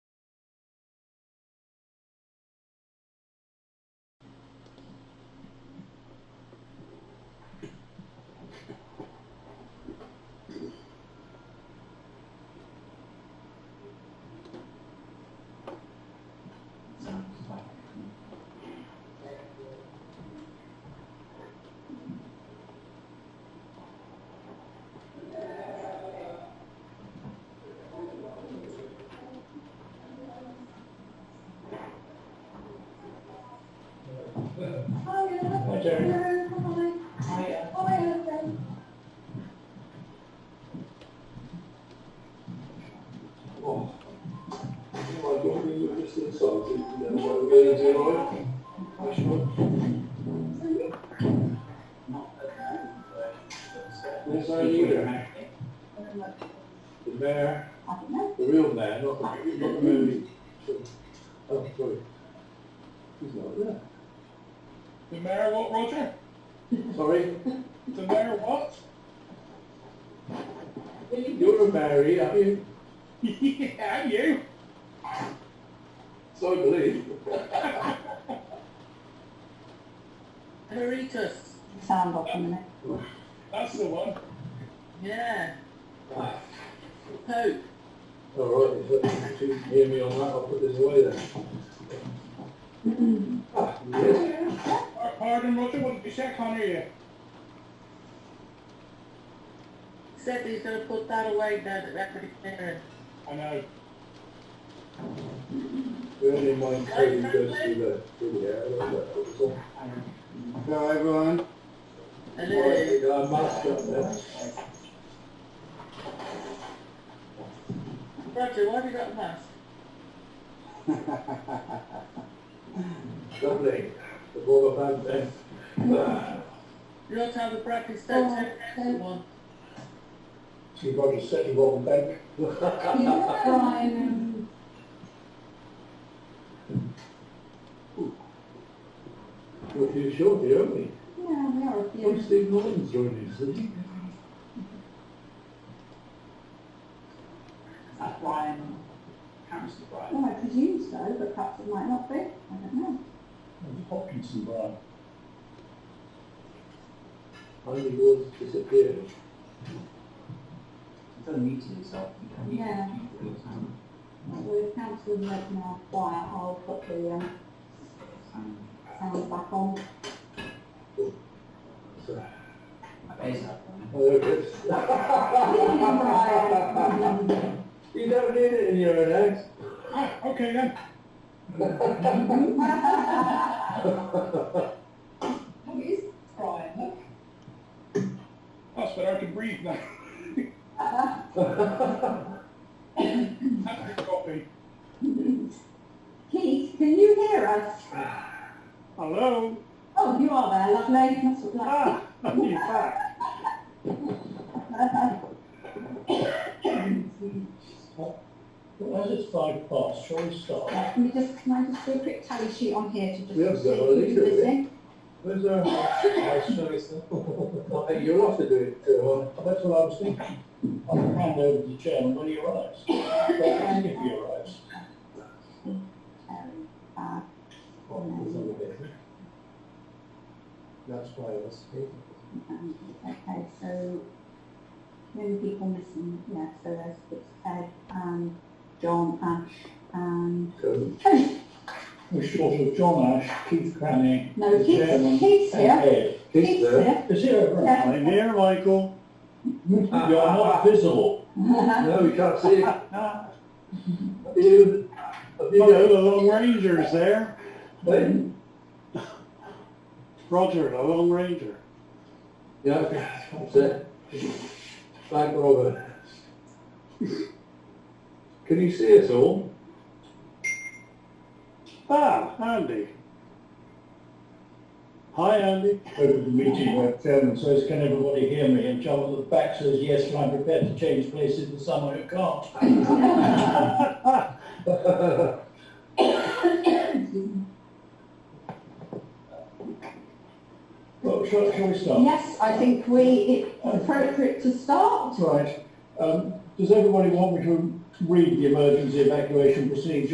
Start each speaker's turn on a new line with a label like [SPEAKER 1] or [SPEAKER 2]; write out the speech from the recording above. [SPEAKER 1] adjourn. I, uh,
[SPEAKER 2] Oh, I don't think you're just insulted. Then what are we gonna do? I should.
[SPEAKER 1] not the time, but it's, uh,
[SPEAKER 2] Yes, I
[SPEAKER 1] it's
[SPEAKER 2] do.
[SPEAKER 1] your birthday.
[SPEAKER 2] The mayor, the real mayor, not the, not the movie. Oh, sorry. He's not there.
[SPEAKER 3] The mayor what, Roger?
[SPEAKER 2] Sorry,
[SPEAKER 3] The mayor what?
[SPEAKER 2] you're a Mary, aren't you?
[SPEAKER 3] yeah, you.
[SPEAKER 2] So I believe.
[SPEAKER 3] Emeritus.
[SPEAKER 4] Sound off a minute.
[SPEAKER 3] That's the one. Yeah.
[SPEAKER 2] Ah,
[SPEAKER 3] Pope.
[SPEAKER 2] All right, if you hear me on that, I'll put this away then. Ah, yes.
[SPEAKER 3] Par- Pardon, Roger, what did you say? I can't hear you.
[SPEAKER 5] Said he's gonna put that away now that record is there.
[SPEAKER 3] I know.
[SPEAKER 2] Bearing in mind, Cody goes through the, through the air, I don't know, that was all.
[SPEAKER 6] Hello, everyone.
[SPEAKER 5] Hello.
[SPEAKER 2] Yeah, mask up there.
[SPEAKER 5] Roger, why have you got a mask?
[SPEAKER 2] Lovely. The ball of hand then. Ah,
[SPEAKER 5] You ought to have a breakfast at
[SPEAKER 4] Oh,
[SPEAKER 5] ten
[SPEAKER 4] okay.
[SPEAKER 5] one.
[SPEAKER 2] You've got to set your own bank.
[SPEAKER 4] Brian,
[SPEAKER 2] Well, you sure, you owe me.
[SPEAKER 4] yeah, we are a
[SPEAKER 2] Well,
[SPEAKER 4] few.
[SPEAKER 2] Steve Norton's joining us, isn't he?
[SPEAKER 1] That's Brian, Harris is Brian.
[SPEAKER 4] Well, I presume so, but perhaps it might not be. I don't know.
[SPEAKER 3] Hopkinson, Brian.
[SPEAKER 2] Only yours disappeared.
[SPEAKER 1] It's a meeting, so you can meet
[SPEAKER 4] Yeah.
[SPEAKER 1] people all the time.
[SPEAKER 4] We're cancelling that now. Quiet. I'll put the um,
[SPEAKER 1] Um,
[SPEAKER 4] sound back on.
[SPEAKER 2] So,
[SPEAKER 1] my base up on
[SPEAKER 2] oh, there it is.
[SPEAKER 4] Brian.
[SPEAKER 2] You don't need it in your own house.
[SPEAKER 3] Ah, okay then.
[SPEAKER 4] Who is Brian?
[SPEAKER 3] That's better. I can breathe now. That's the copy.
[SPEAKER 4] Keith, can you hear us?
[SPEAKER 3] Hello.
[SPEAKER 4] Oh, you are there, lovely. That's what I
[SPEAKER 3] Ah, you're back.
[SPEAKER 2] Well, as it's five past, shall we start?
[SPEAKER 4] Let me just, Uh, can I just do a quick tally sheet on here to just
[SPEAKER 2] Yeah,
[SPEAKER 4] see
[SPEAKER 2] well,
[SPEAKER 4] who's
[SPEAKER 2] literally.
[SPEAKER 4] busy?
[SPEAKER 2] Where's uh, our house choice? I think you'll have to do it, uh, that's what I was thinking. I'll hand over to chairman when he arrives. If he arrives.
[SPEAKER 4] Um, uh,
[SPEAKER 2] Oh, That's why I was thinking.
[SPEAKER 4] Um, Okay, so many people missing, yeah, so there's it's Ed and John Ash and
[SPEAKER 2] So,
[SPEAKER 4] Tony.
[SPEAKER 3] We're short of John Ash, Keith Cranny,
[SPEAKER 4] No, Keith, Keith's here.
[SPEAKER 3] Ed.
[SPEAKER 2] Keith there.
[SPEAKER 3] Is here,
[SPEAKER 4] Yeah.
[SPEAKER 3] I'm here, Michael.
[SPEAKER 2] You're not
[SPEAKER 3] visible.
[SPEAKER 2] No, we can't see you. You, have you
[SPEAKER 3] Hello,
[SPEAKER 2] got,
[SPEAKER 3] the Lone Ranger's there.
[SPEAKER 2] hey?
[SPEAKER 3] Roger, the Lone Ranger.
[SPEAKER 2] Yeah, that's it. Thank Robert. Can you see us all?
[SPEAKER 3] Ah, Andy. Hi, Andy.
[SPEAKER 7] over the meeting where chairman says, can everybody hear me? And Charles at the back says, yes, and I'm prepared to change places with someone who can't. Well, shall, shall we start?
[SPEAKER 4] Yes, I think we, it's appropriate to start.
[SPEAKER 7] Right. Um, does everybody want me to read the emergency evacuation procedure?